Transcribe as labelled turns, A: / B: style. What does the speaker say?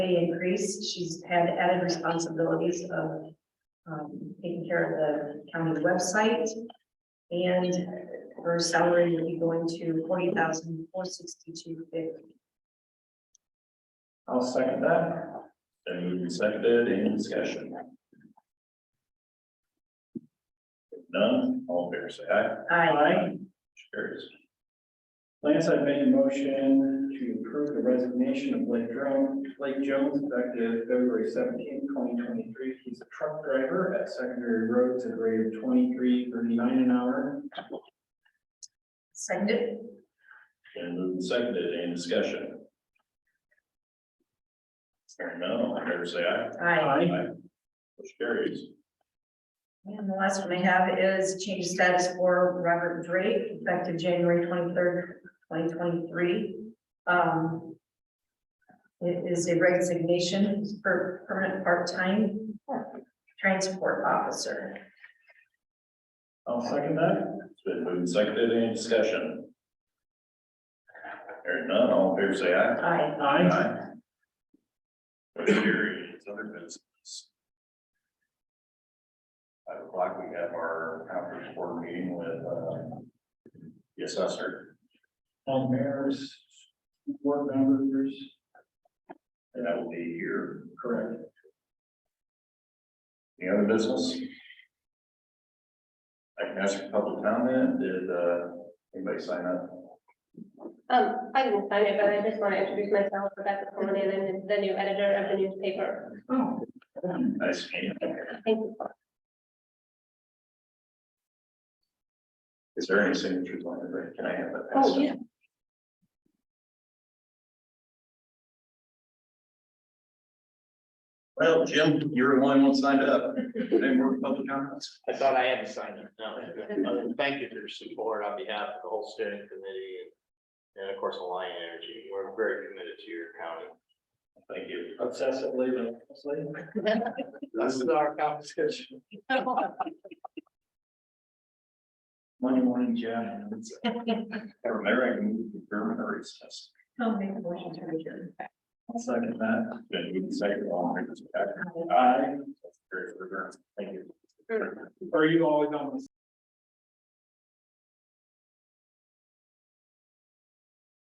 A: pay increase. She's had added responsibilities of um, taking care of the county website. And her salary will be going to forty thousand four sixty-two fifty.
B: I'll second that. Then moved and seconded, any discussion? If None, all fair say aye.
A: Aye.
B: Carries.
C: Lance, I've made a motion to approve the resignation of Blake Jones, Blake Jones effective February seventeenth, twenty twenty-three. He's a truck driver at secondary roads at a rate of twenty-three thirty-nine an hour.
A: Seconded.
B: Then moved and seconded, any discussion? Hearing none, all fair say aye.
A: Aye.
B: Motion carries.
A: And the last one I have is change status for Robert Drake effective January twenty-third, twenty twenty-three. Um. It is a resignation for permanent part-time transport officer.
B: I'll second that. It's been moved and seconded, any discussion? Hearing none, all fair say aye.
A: Aye.
B: Aye. Motion carries, other business. Five o'clock, we have our conference board meeting with, uh, the assessor,
C: All mayors, board members,
B: and that will be here.
C: correct.
B: Any other business? I can ask for public comment, did, uh, anybody sign up?
D: Um, I didn't sign it, but I just want to introduce myself, Rebecca Coleman, and the new editor of the newspaper.
A: Oh,
B: Nice meeting. you.
D: Thank you.
B: Is there any signatures on it? Can I have that?
D: Oh, yeah.
B: Well, Jim, you're the only one signed up. Any more public comments?
E: I thought I had to sign it. No, Uh, thank you for your support on behalf of the whole steering committee and. And of course, Alliant Energy. We're very committed to your county.
B: Thank you.
C: Obsessively, relentlessly.
E: This is our competition.
C: Monday morning, Jeff.
B: Or Mayor, I can move to German or recess.
A: I'll make a motion to adjourn.
C: I'll second that.
B: Then you can say it all.
A: Aye.
B: Aye. Very, very, very. Thank you.
C: Are you always on the